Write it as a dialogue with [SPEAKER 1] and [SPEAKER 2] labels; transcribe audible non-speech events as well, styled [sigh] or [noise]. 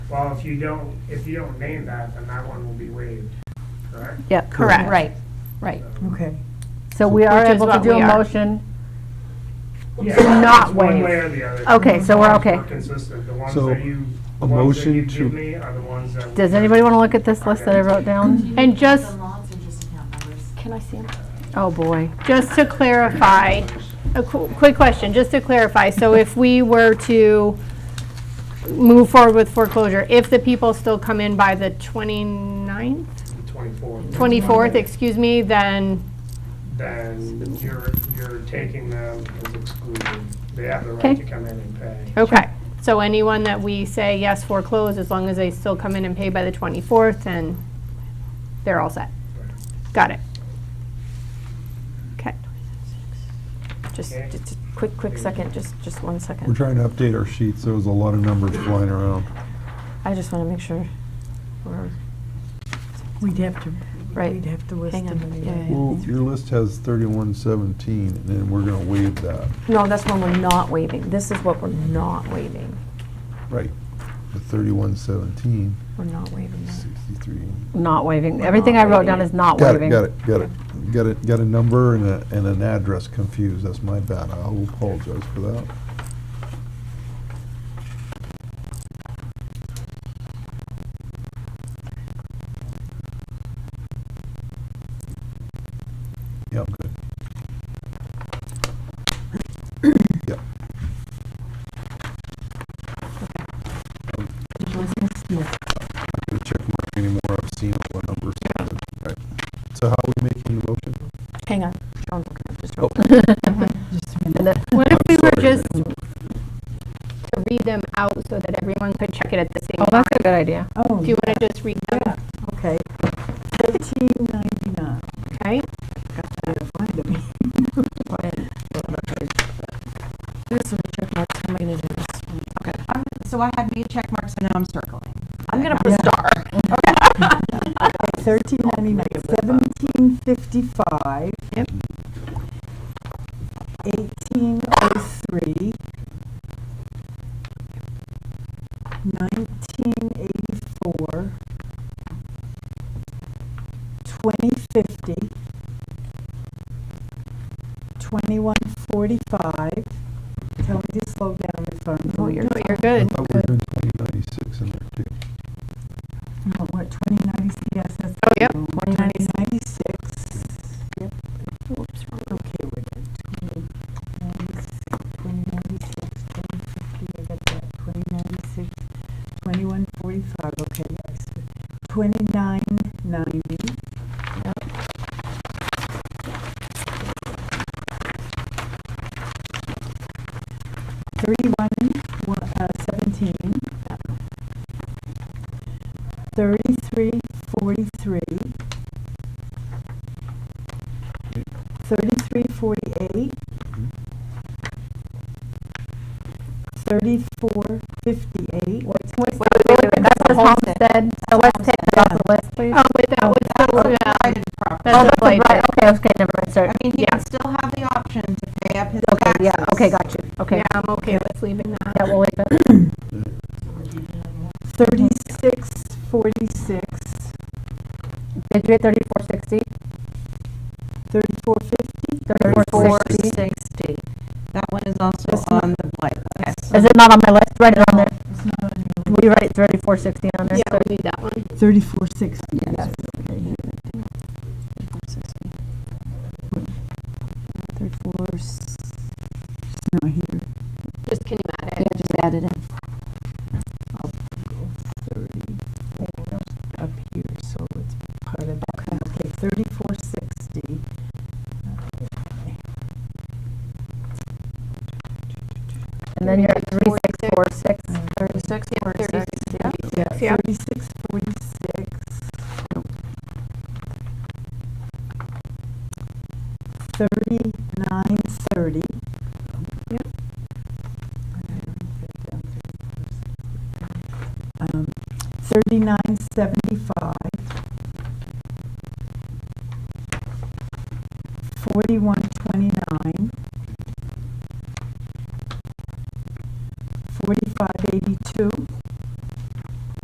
[SPEAKER 1] Well, if you don't, if you don't name that, then that one will be waived, correct?
[SPEAKER 2] Yeah.
[SPEAKER 3] Correct.
[SPEAKER 2] Right, right.
[SPEAKER 3] Okay.
[SPEAKER 2] So we are
[SPEAKER 4] Which is
[SPEAKER 2] able to
[SPEAKER 4] what
[SPEAKER 2] do
[SPEAKER 4] we
[SPEAKER 2] a
[SPEAKER 4] are.
[SPEAKER 2] motion.
[SPEAKER 1] Yeah,
[SPEAKER 2] not
[SPEAKER 1] it's One
[SPEAKER 2] waived.
[SPEAKER 1] way or the other.
[SPEAKER 2] Okay, so we're
[SPEAKER 1] The ones
[SPEAKER 2] okay.
[SPEAKER 1] were consistent, the ones
[SPEAKER 5] So,
[SPEAKER 1] that you, the
[SPEAKER 5] a
[SPEAKER 1] ones that
[SPEAKER 5] motion
[SPEAKER 1] you
[SPEAKER 5] to-
[SPEAKER 1] give me are the ones that.
[SPEAKER 2] Does anybody want to look at this list that I wrote
[SPEAKER 4] [laughs]
[SPEAKER 2] down?
[SPEAKER 4] And just,
[SPEAKER 6] The lots are just account numbers.
[SPEAKER 4] can I see them?
[SPEAKER 2] Oh, boy.
[SPEAKER 4] Just to clarify, a qu- quick question, just to clarify, so if we were to move forward with foreclosure, if the people still come in by the 29th,
[SPEAKER 1] Twenty-four.
[SPEAKER 4] 24th, excuse me, then,
[SPEAKER 1] Then you're, you're taking them as excluded. They have the right
[SPEAKER 4] Okay.
[SPEAKER 1] to come in and pay.
[SPEAKER 4] okay. So anyone that we say yes foreclose, as long as they still come in and pay by the 24th, then they're all set. Got it. Okay.
[SPEAKER 1] Just- Okay. just
[SPEAKER 6] quick, quick second, just, just one
[SPEAKER 5] We're
[SPEAKER 6] second.
[SPEAKER 5] trying to update our sheets. There was a lot of numbers flying around.
[SPEAKER 6] I just want to make sure we're,
[SPEAKER 3] We'd have to,
[SPEAKER 6] Right.
[SPEAKER 3] we'd have to list
[SPEAKER 6] Hang
[SPEAKER 3] them
[SPEAKER 6] on. Yeah,
[SPEAKER 3] anyway.
[SPEAKER 6] yeah,
[SPEAKER 5] Well, your list has thirty-one seventeen, and then we're gonna waive that.
[SPEAKER 6] no, that's one we're not waiving. This is what we're not waiving.
[SPEAKER 5] Right. The thirty-one seventeen,
[SPEAKER 6] We're not waiving that.
[SPEAKER 5] sixty-three.
[SPEAKER 2] Not waiving. Everything I wrote down is not
[SPEAKER 5] Got
[SPEAKER 2] waiving.
[SPEAKER 5] it, got it, got it. Got it, got a number and a, and an address confused. That's my bad. I will apologize for that. Yep, good. Yep. Not gonna check mark anymore. I've seen all the numbers. Right. So how are we making the motion?
[SPEAKER 6] Hang on. Sean's looking at this real
[SPEAKER 5] Oh.
[SPEAKER 6] quick.
[SPEAKER 4] What if we were
[SPEAKER 5] sorry.
[SPEAKER 4] just to read them out so that everyone could check it at the same
[SPEAKER 2] Oh,
[SPEAKER 4] time?
[SPEAKER 2] that's a good idea.
[SPEAKER 3] Oh,
[SPEAKER 4] Do you want to just read them?
[SPEAKER 3] yeah, Oh, okay. Thirteen ninety-nine.
[SPEAKER 4] Okay,
[SPEAKER 3] Find them.
[SPEAKER 6] This is a check mark. How am I going to do this?
[SPEAKER 7] I'm- So I had made check marks, so now I'm circling.
[SPEAKER 6] I'm going to put a star.
[SPEAKER 3] Thirteen ninety-nine, seventeen fifty-five.
[SPEAKER 4] Yep.
[SPEAKER 3] Eighteen oh three. Nineteen eighty-four. Twenty fifty. Twenty-one forty-five. Tell me to slow down if I'm.
[SPEAKER 4] no, Oh, you're good.
[SPEAKER 5] I thought we were doing twenty ninety-six in there too.
[SPEAKER 3] No, what, twenty ninety-six, yes, that's.
[SPEAKER 4] Oh, yep,
[SPEAKER 3] Twenty ninety-six. Yep. Okay, we're at twenty ninety-six, twenty ninety-six, twenty fifty, I got that, twenty ninety-six, twenty-one forty-five, okay, yes. Twenty-nine ninety. Thirty-one, one, uh, seventeen. Thirty-three, forty-three. Thirty-three, forty-eight. Thirty-four, fifty-eight.
[SPEAKER 2] Wait, wait, wait, wait, That's the homestead, so let's take that off the list, please.
[SPEAKER 4] Oh, wait, that was, that was,
[SPEAKER 7] I
[SPEAKER 4] uh,
[SPEAKER 7] did proper.
[SPEAKER 2] Oh,
[SPEAKER 4] that's a blight.
[SPEAKER 2] right, okay, okay, never mind, sorry.
[SPEAKER 7] I mean, he
[SPEAKER 4] yeah.
[SPEAKER 7] can still have the option to pay up his
[SPEAKER 2] Okay,
[SPEAKER 7] taxes.
[SPEAKER 2] yeah, okay, got you, okay.
[SPEAKER 4] Yeah, I'm okay with leaving that.
[SPEAKER 2] Yeah, we'll leave it.
[SPEAKER 3] Thirty-six, forty-six.
[SPEAKER 2] Did you get thirty-four sixty?
[SPEAKER 3] Thirty-four, fifty.
[SPEAKER 2] Thirty-four
[SPEAKER 3] sixty.
[SPEAKER 7] That one is also on the blight list.
[SPEAKER 2] Is it not on my list? Write it on there. Will you write thirty-four sixty on there?
[SPEAKER 4] Yeah,
[SPEAKER 2] So-
[SPEAKER 4] we need that one.
[SPEAKER 3] Thirty-four, sixty, yes.
[SPEAKER 6] Thirty-four. s-
[SPEAKER 3] Not here.
[SPEAKER 4] Just can you add
[SPEAKER 6] Yeah,
[SPEAKER 4] it?
[SPEAKER 6] just add it in.
[SPEAKER 3] Thirty, up here, so it's part of that. Okay, thirty-four, sixty.
[SPEAKER 2] And then you're at three six four six.
[SPEAKER 6] Thirty-six.
[SPEAKER 4] Yeah, 36.
[SPEAKER 3] Yeah,
[SPEAKER 4] Yeah.
[SPEAKER 3] thirty-six, forty-six. Thirty-nine, thirty.
[SPEAKER 4] Yep.
[SPEAKER 3] Um, thirty-nine, seventy-five. Forty-one,